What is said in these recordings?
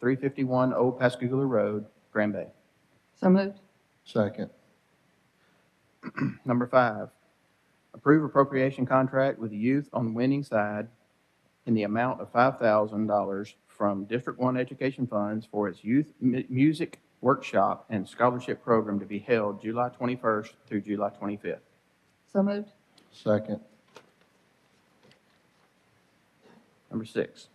351 Old Pascagoula Road, Grand Bay. So moved. second, Number five, approve appropriation contract with youth on winning side in the amount of $5,000 from District One Education Funds for its youth mu- music workshop and scholarship program to be held July 21st through July 25th. So moved. second, Number six,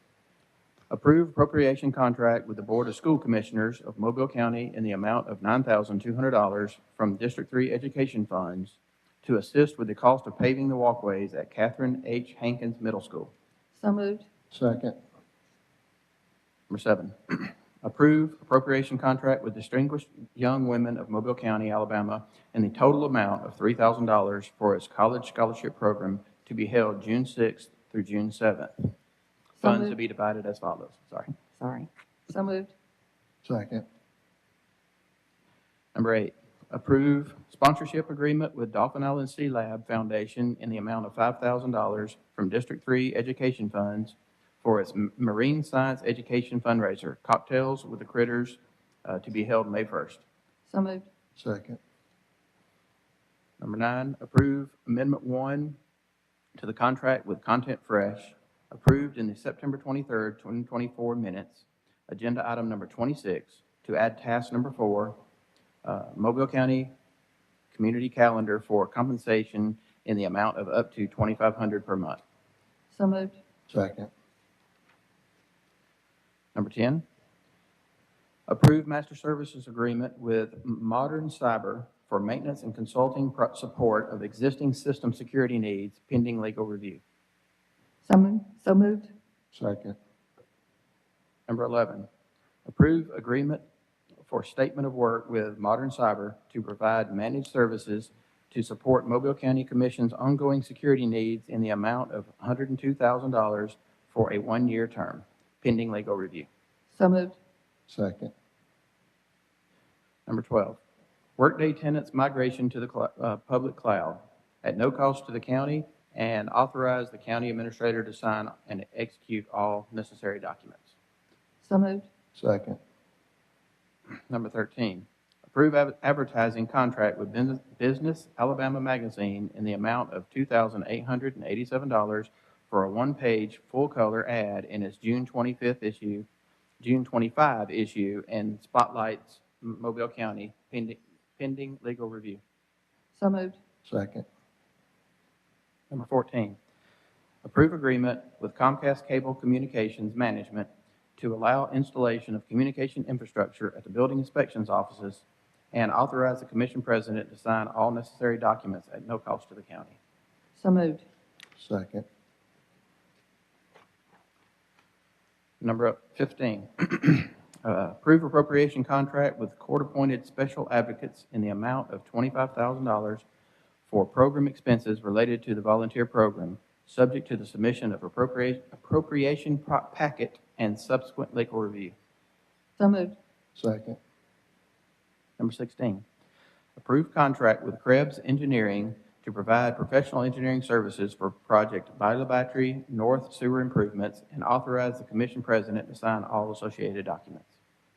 approve appropriation contract with the Board of School Commissioners of Mobile County in the amount of $9,200 from District 3 Education Funds to assist with the cost of paving the walkways at Catherine H. Hankins Middle School. So moved. second, Number seven, approve appropriation contract with Distinguished Young Women of Mobile County, Alabama, in the total amount of $3,000 for its college scholarship program to be held June 6th through June 7th. So Funds to moved. be divided as follows, sorry. Sorry. So moved. second, Number eight, approve sponsorship agreement with Dolphin Island Sea Lab Foundation in the amount of $5,000 from District 3 Education Funds for its m- Marine Science Education fundraiser, Cocktails with the Critters, uh, to be held May 1st. So moved. second, Number nine, approve Amendment One to the contract with Content Fresh, approved in the September twenty-third, twenty twenty-four minutes. Agenda item number twenty-six, to add task number four, uh, Mobile County Community Calendar for compensation in the amount of up to twenty-five hundred per month. So moved. second, Number 10, approve master services agreement with Modern Cyber for maintenance and consulting pro- support of existing system security needs pending legal review. So moved. So moved. second, Number 11, approve agreement for statement of work with Modern Cyber to provide managed services to support Mobile County Commission's ongoing security needs in the amount of $102,000 for a one-year term, pending legal review. So moved. second, Number 12, workday tenants migration to the cl- uh, public cloud at no cost to the county and authorize the county administrator to sign and execute all necessary documents. So moved. second, Number 13, approve ad- advertising contract with Bus- Business Alabama Magazine in the amount of $2,887 for a one-page, full-color ad in its June 25th issue, June 25 issue, and spotlights M- Mobile County pending- pending legal review. So moved. second, Number 14, approve agreement with Comcast Cable Communications Management to allow installation of communication infrastructure at the building inspections offices and authorize the commission president to sign all necessary documents at no cost to the county. So moved. second, Number 15, uh, approve appropriation contract with court-appointed special advocates in the amount of $25,000 for program expenses related to the volunteer program, subject to the submission of appropriate- appropriation pro- packet and subsequent legal review. So moved. second, Number 16, approve contract with Krebs Engineering to provide professional engineering services for project Viola Battery North Sewer Improvements and authorize the commission president to sign all associated documents.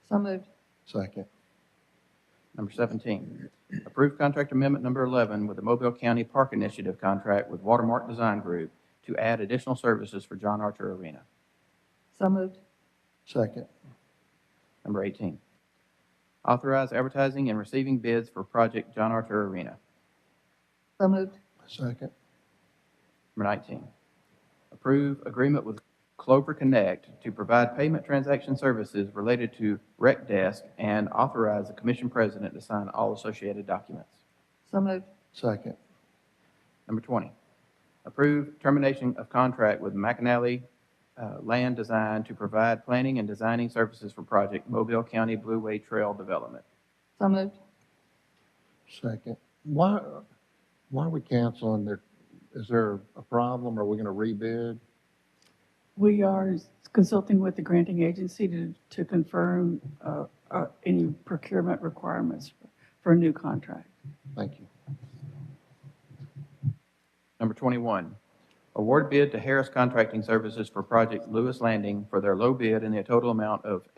So moved. second, Number 17, approve contract amendment number 11 with the Mobile County Park Initiative contract with Watermark Design Group to add additional services for John Archer Arena. So moved. second, Number 18, authorize advertising and receiving bids for project John Archer Arena. So moved. second, Number 19, approve agreement with Clover Connect to provide payment transaction services related to Rec Desk and authorize the commission president to sign all associated documents. So moved. second, Number 20, approve termination of contract with McAnally uh, Land Design to provide planning and designing services for project Mobile County Blue Way Trail Development. So moved. second. Why, why are we canceling there? Is there a problem? Are we gonna rebid? We are consulting with the granting agency to, to confirm uh, uh, any procurement requirements for a new contract. Thank you, Number 21, award bid to Harris Contracting Services for project Lewis Landing for their low bid in the total amount of